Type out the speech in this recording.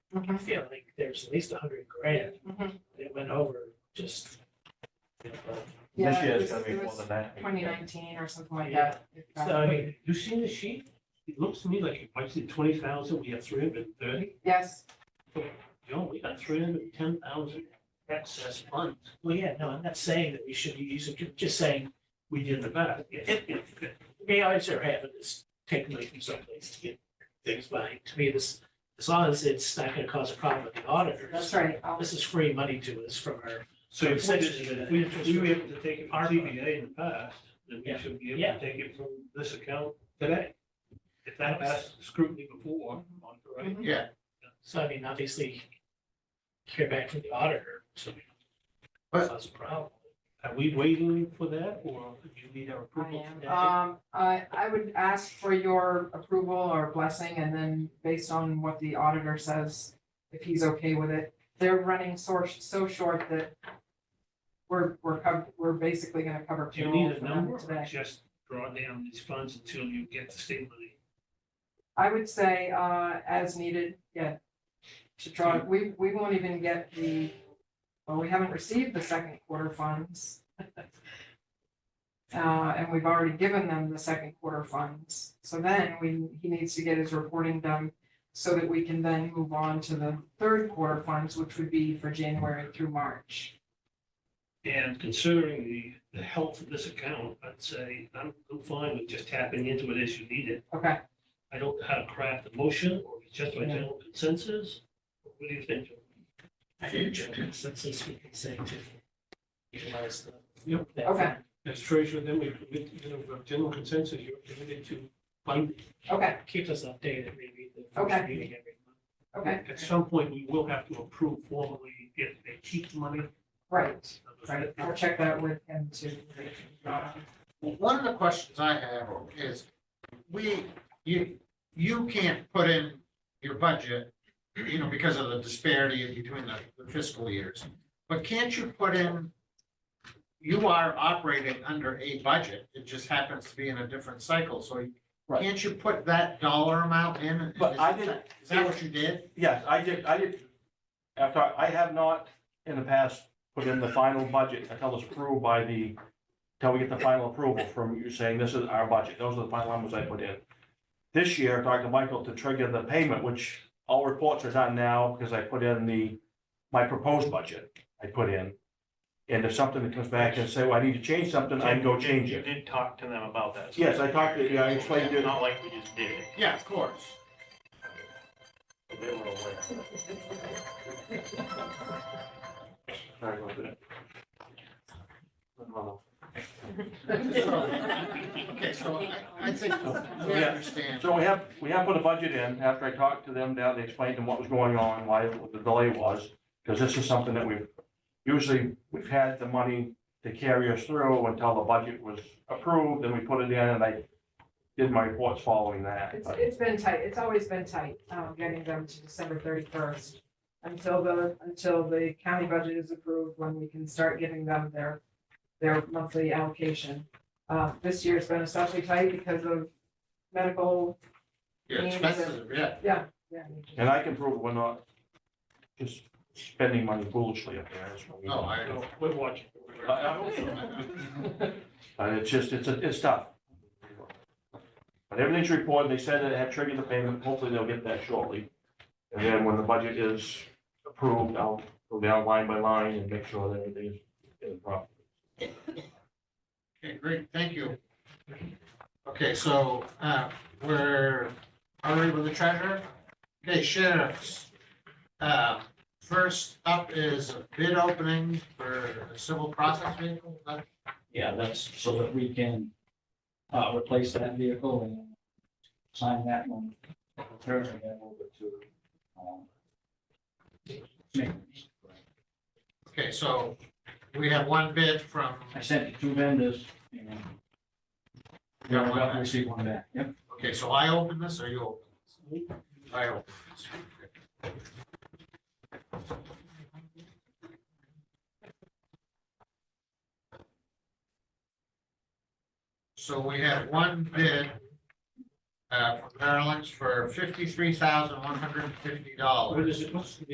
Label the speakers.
Speaker 1: Mhm.
Speaker 2: Mm-hmm.
Speaker 3: I feel like there's at least a hundred grand
Speaker 1: Mhm.
Speaker 3: that went over just. you know,
Speaker 1: Yeah,
Speaker 2: This year
Speaker 1: it
Speaker 2: it's
Speaker 1: was-
Speaker 2: gonna be
Speaker 1: it
Speaker 2: more
Speaker 1: was
Speaker 2: than that.
Speaker 1: Twenty nineteen or something like
Speaker 3: Yeah.
Speaker 1: that. It
Speaker 3: So
Speaker 1: got-
Speaker 3: I mean,
Speaker 4: You seen the sheet? It looks to me like you might see twenty thousand, we have three hundred and thirty.
Speaker 1: Yes,
Speaker 4: No, we got three hundred and ten thousand excess funds.
Speaker 3: well, yeah, no, I'm not saying that we should be using, ju- just saying,
Speaker 4: We did the best.
Speaker 3: it, it, it- we always are having this taken away from someplace to get things by. To me, this, as long as it's not gonna cause a problem with the auditors.
Speaker 1: that's right. I'll-
Speaker 3: This is free money to us from our,
Speaker 4: So if we,
Speaker 3: Essentially,
Speaker 4: did- if we if we were able to take it from
Speaker 3: Our-
Speaker 4: CBA in the past, then we
Speaker 3: Yeah.
Speaker 4: should be able
Speaker 3: Yeah.
Speaker 4: to take it from this account today. If that passed scrutiny before, on the right?
Speaker 1: Mhm.
Speaker 5: Yeah,
Speaker 3: so I mean, obviously, hear back from the auditor, so we don't
Speaker 5: But-
Speaker 3: cause a problem.
Speaker 4: Are we waiting for that or do you need our
Speaker 1: I
Speaker 4: approval?
Speaker 1: am.
Speaker 4: today?
Speaker 1: Um, I, I would ask for your approval or blessing and then based on what the auditor says, if he's okay with it. They're running so, so short that we're, we're, cov- we're basically gonna cover
Speaker 4: Do you
Speaker 1: payroll
Speaker 4: need
Speaker 1: for
Speaker 4: a
Speaker 1: them
Speaker 4: number or
Speaker 1: today.
Speaker 4: just draw down these funds until you get the state money?
Speaker 1: I would say, uh, as needed, yeah. To draw, we, we won't even get the, well, we haven't received the second quarter funds. Uh, and we've already given them the second quarter funds, so then we, he needs to get his reporting done. So that we can then move on to the third quarter funds, which would be for January through March.
Speaker 4: And considering the, the health of this account, I'd say I'm, I'm fine with just tapping into it as you need it.
Speaker 1: Okay,
Speaker 4: I don't know how to craft a motion or if it's just by
Speaker 1: Yeah.
Speaker 4: general consensus. What do you think? Joe?
Speaker 3: I think Joe consensus we can say to utilize the.
Speaker 4: Yep.
Speaker 3: that
Speaker 1: Okay.
Speaker 3: fund.
Speaker 4: As treasurer, then we, we, you know, we have general consensus, you're committed to fund,
Speaker 1: okay,
Speaker 3: Keep us updated, maybe the first
Speaker 1: Okay.
Speaker 3: meeting every month.
Speaker 1: okay,
Speaker 4: at some point, we will have to approve formally if they keep money.
Speaker 1: right, right, I'll check that with him too.
Speaker 5: Well, one of the questions I have is, we, you, you can't put in your budget, you know, because of the disparity between the the fiscal years, but can't you put in, you are operating under a budget, it just happens to be in a different cycle, so you-
Speaker 2: Right.
Speaker 5: can't you put that dollar amount in?
Speaker 2: But I
Speaker 5: Is
Speaker 2: didn't-
Speaker 5: that- Is that what you did?
Speaker 2: Yes, I did, I did, after, I have not in the past put in the final budget until it's approved by the, until we get the final approval from you saying this is our budget, those are the final numbers I put in. This year, I talked to Michael to trigger the payment, which all reports are done now, because I put in the, my proposed budget I put in. And if something that comes back and say, well, I need to change something, I go change
Speaker 6: You
Speaker 2: it.
Speaker 6: did talk to them about that.
Speaker 2: Yes, I talked to, yeah, I explained
Speaker 6: It's
Speaker 2: it,
Speaker 6: Not like we just did it.
Speaker 5: Yeah, of course.
Speaker 6: They were aware.
Speaker 2: Sorry about that.
Speaker 5: Okay, so I, I think we
Speaker 2: Yeah.
Speaker 5: understand.
Speaker 2: So we have, we have put a budget in, after I talked to them down, they explained to them what was going on, why the delay was, because this is something that we've, usually, we've had the money to carry us through until the budget was approved, and we put it in, and I did my reports following that,
Speaker 1: It's,
Speaker 2: but
Speaker 1: it's been tight, it's always been tight, um, getting them to December thirty-first. Until the, until the county budget is approved, when we can start giving them their, their monthly allocation. Uh, this year's been especially tight because of medical,
Speaker 5: Your expenses, yeah.
Speaker 1: yeah, yeah.
Speaker 2: And I can prove we're not just spending money foolishly up there, that's what we.
Speaker 5: No, Oh, I
Speaker 4: So We're watching.
Speaker 2: I- I hope so. But it's just, it's, a- it's tough. But everything's reported, they said that it had triggered the payment, hopefully they'll get that shortly. And then when the budget is approved, I'll go down line by line and make sure that everything's in proper.
Speaker 5: Okay, great, thank you. Okay, so, uh, we're, are we with the treasurer? Okay, sheriffs. Uh, first up is a bid opening for a civil process vehicle, Uh, Is that-
Speaker 7: Yeah, that's so that we can uh, replace that vehicle and sign that one. Turn it over to, um, maintenance.
Speaker 5: okay, so we have one bid from,
Speaker 7: I sent you two vendors, you know.
Speaker 5: You got one back?
Speaker 7: Received one back, yep.
Speaker 5: okay, so I open this or you open this? I open this. So we have one bid uh, from Maryland's for fifty-three thousand one hundred and fifty dollars.
Speaker 4: What is it, what's the